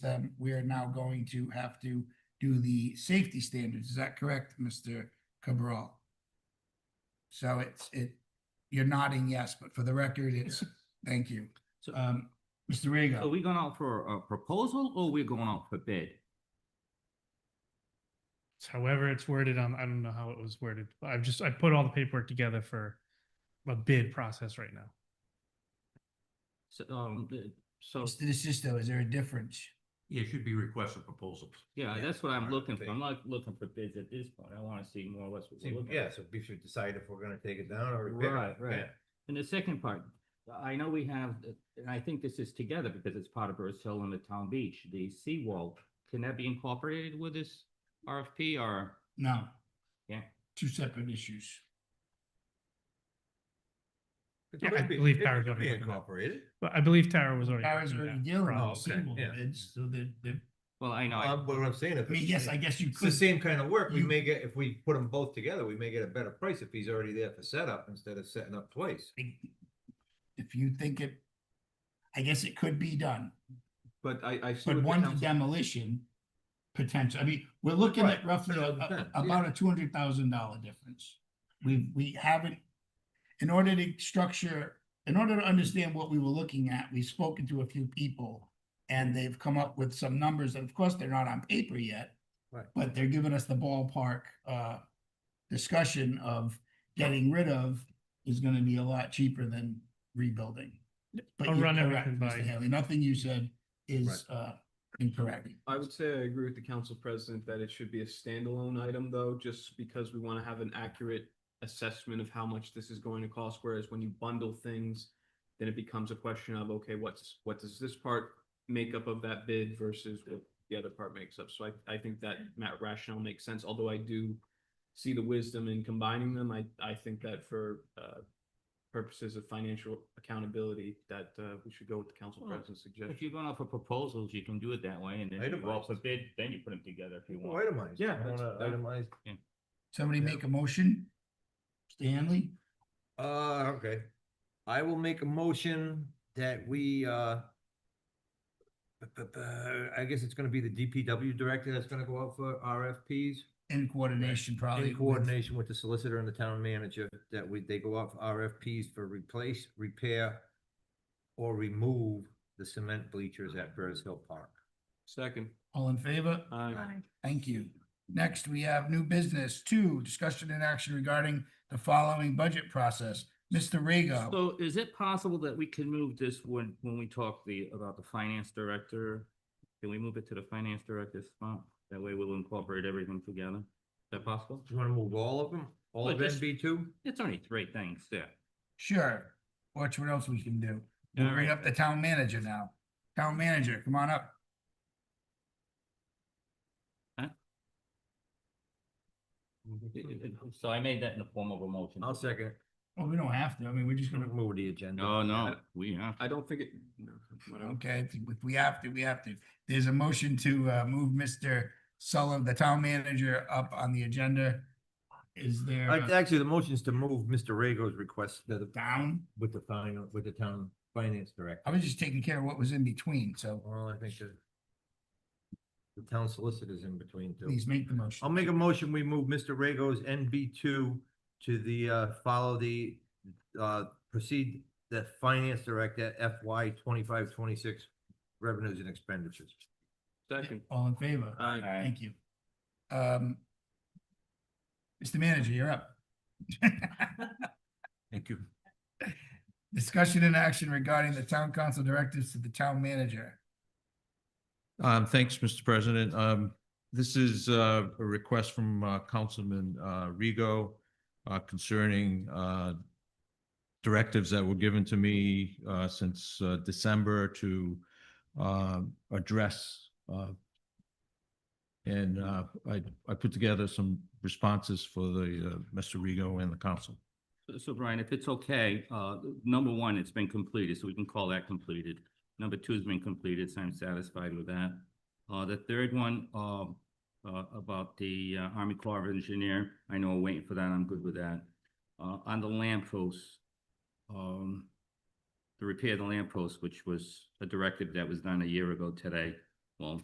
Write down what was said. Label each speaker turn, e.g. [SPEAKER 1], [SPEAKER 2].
[SPEAKER 1] then um, we are now going to have to do the safety standards. Is that correct, Mr. Cabral? So it's, it, you're nodding yes, but for the record, it's, thank you.
[SPEAKER 2] So-
[SPEAKER 1] Um, Mr.
[SPEAKER 3] Oh,
[SPEAKER 2] Are
[SPEAKER 1] Rego,
[SPEAKER 2] we going out for a proposal or we're going out for bid?
[SPEAKER 4] It's However it's worded on, I don't know how it was worded. I've just, I put all the paperwork together for a bid process right now.
[SPEAKER 2] So, um, the- so,
[SPEAKER 1] Mr. DeSisto, is there a difference?
[SPEAKER 5] Yeah, it should be request for proposals.
[SPEAKER 2] yeah,
[SPEAKER 3] Yeah,
[SPEAKER 2] that's what I'm
[SPEAKER 3] alright,
[SPEAKER 2] looking for.
[SPEAKER 3] thank
[SPEAKER 2] I'm
[SPEAKER 3] you.
[SPEAKER 2] not looking for bids at this point. I want to see more or less what we're
[SPEAKER 3] See,
[SPEAKER 2] looking
[SPEAKER 3] Yeah,
[SPEAKER 2] at.
[SPEAKER 3] so we should decide if we're gonna take it down or repair it.
[SPEAKER 2] Right, right.
[SPEAKER 3] Yeah.
[SPEAKER 2] And the second part, I know we have, and I think this is together because it's part of Burris Hill and the town beach, the seawall. Can that be incorporated with this RFP or?
[SPEAKER 1] No.
[SPEAKER 2] Yeah.
[SPEAKER 1] Two separate issues.
[SPEAKER 3] It
[SPEAKER 4] Yeah, I
[SPEAKER 3] could be-
[SPEAKER 4] believe
[SPEAKER 3] it
[SPEAKER 4] Barry's
[SPEAKER 3] could
[SPEAKER 4] already
[SPEAKER 3] be
[SPEAKER 4] looking at it.
[SPEAKER 3] Incorporated.
[SPEAKER 4] But I believe Tara was already.
[SPEAKER 1] Tara's
[SPEAKER 4] working
[SPEAKER 1] already
[SPEAKER 4] that
[SPEAKER 1] dealing
[SPEAKER 4] process.
[SPEAKER 1] with
[SPEAKER 3] process.
[SPEAKER 1] seawall
[SPEAKER 3] Oh, Yeah.
[SPEAKER 1] bids, so they're, they're,
[SPEAKER 2] Well, I know, I-
[SPEAKER 3] Um, but what I'm saying, if.
[SPEAKER 1] I mean,
[SPEAKER 3] it's-
[SPEAKER 1] yes, I guess you
[SPEAKER 3] It's the
[SPEAKER 1] could.
[SPEAKER 3] same kind of work. We
[SPEAKER 1] you-
[SPEAKER 3] may get, if we put them both together, we may get a better price if he's already there for setup instead of setting up twice.
[SPEAKER 1] If you think it, I guess it could be done,
[SPEAKER 2] but I, I. see
[SPEAKER 1] but
[SPEAKER 2] what the
[SPEAKER 1] one
[SPEAKER 2] council-
[SPEAKER 1] demolition potential, I mean, we're looking at
[SPEAKER 3] Right,
[SPEAKER 1] roughly a-
[SPEAKER 3] that's what I'm
[SPEAKER 1] a-
[SPEAKER 3] saying, yeah.
[SPEAKER 1] about a two hundred thousand dollar difference. We, we haven't, in order to structure, in order to understand what we were looking at, we've spoken to a few people and they've come up with some numbers, and of course, they're not on paper yet.
[SPEAKER 3] Right.
[SPEAKER 1] But they're giving us the ballpark, uh, discussion of getting rid of is gonna be a lot cheaper than rebuilding. But
[SPEAKER 4] I'll
[SPEAKER 1] you're
[SPEAKER 4] run
[SPEAKER 1] correct,
[SPEAKER 4] everything by
[SPEAKER 1] Mr.
[SPEAKER 4] you.
[SPEAKER 1] Haley, nothing you said is, uh, incorrect.
[SPEAKER 6] I would say I agree with the council president that it should be a standalone item though, just because we want to have an accurate assessment of how much this is going to cost, whereas when you bundle things, then it becomes a question of, okay, what's, what does this part make up of that bid versus what the other part makes up? So I, I think that Matt rationale makes sense, although I do see the wisdom in combining them. I, I think that for, uh, purposes of financial accountability, that, uh, we should go with the council
[SPEAKER 2] Well,
[SPEAKER 6] president's suggestion.
[SPEAKER 2] If you're going out for proposals, you can do it that way and then you go out for
[SPEAKER 3] Itemized.
[SPEAKER 2] bid, then you put them together if you want.
[SPEAKER 3] Itemized.
[SPEAKER 6] Yeah,
[SPEAKER 3] I wanna
[SPEAKER 6] that's-
[SPEAKER 3] Itemize.
[SPEAKER 1] Somebody
[SPEAKER 3] Yeah.
[SPEAKER 1] make a motion? Stanley,
[SPEAKER 3] Uh, okay. I will make a motion that we, uh, but, but, uh, I guess it's gonna be the DPW director that's gonna go out for RFPs.
[SPEAKER 1] in coordination probably.
[SPEAKER 3] In
[SPEAKER 1] with-
[SPEAKER 3] coordination with the solicitor and the town manager, that we, they go out for RFPs for replace, repair, or remove the cement bleachers at Burris Hill Park.
[SPEAKER 6] Second,
[SPEAKER 1] All in favor?
[SPEAKER 6] aye.
[SPEAKER 1] Thank you. Next, we have new business, two, discussion and action regarding the following budget process. Mr. Rego,
[SPEAKER 2] So is it possible that we can move this when, when we talk the, about the finance director? Can we move it to the finance director's spot? That way we'll incorporate everything together. Is that possible?
[SPEAKER 3] Do you wanna move all of them, all
[SPEAKER 2] Well,
[SPEAKER 3] of
[SPEAKER 2] just-
[SPEAKER 3] NB two?
[SPEAKER 2] It's only three things there.
[SPEAKER 1] sure. Watch what else we can do. We'll
[SPEAKER 2] All
[SPEAKER 1] bring
[SPEAKER 2] right.
[SPEAKER 1] up the town manager now. Town manager, come on up.
[SPEAKER 2] So I made that in the form of a motion.
[SPEAKER 3] I'll second it.
[SPEAKER 1] Well, we don't have to. I mean, we're just
[SPEAKER 3] Just gonna
[SPEAKER 1] gonna,
[SPEAKER 3] move the agenda.
[SPEAKER 2] No, no, we have.
[SPEAKER 6] I don't think it, no, whatever.
[SPEAKER 1] okay, if if we have to, we have to. There's a motion to uh move Mr. Sullivan, the town manager, up on the agenda. Is there
[SPEAKER 3] Uh,
[SPEAKER 1] a
[SPEAKER 3] Actually, the motion is to move Mr. Rago's request to the,
[SPEAKER 1] down?
[SPEAKER 3] with the final, with the town finance director.
[SPEAKER 1] I was just taking care of what was in between, so
[SPEAKER 3] Well, I think that the town solicitor's in between too.
[SPEAKER 1] please make the motion.
[SPEAKER 3] I'll make a motion, we move Mr. Rago's NB two to the, uh, follow the, uh, proceed the finance director FY twenty-five, twenty-six revenues and expenditures.
[SPEAKER 6] Second,
[SPEAKER 1] All in favor?
[SPEAKER 6] aye.
[SPEAKER 1] Thank you. Um, Mr. Manager, you're up.
[SPEAKER 5] Thank you.
[SPEAKER 1] Discussion and action regarding the town council directives to the town manager.
[SPEAKER 5] Um, thanks, Mr. President. Um, this is, uh, a request from, uh, Councilman, uh, Rego, uh, concerning, uh, directives that were given to me, uh, since, uh, December to, um, address, uh, and, uh, I, I put together some responses for the, uh, Mr. Rego and the council.
[SPEAKER 2] So- So Brian, if it's okay, uh, number one, it's been completed, so we can call that completed. Number two's been completed, so I'm satisfied with that. Uh, the third one, um, uh, about the uh, Army Corps of Engineer, I know we're waiting for that, I'm good with that. Uh, on the lamp posts, um, the repair of the lamp posts, which was a directive that was done a year ago today.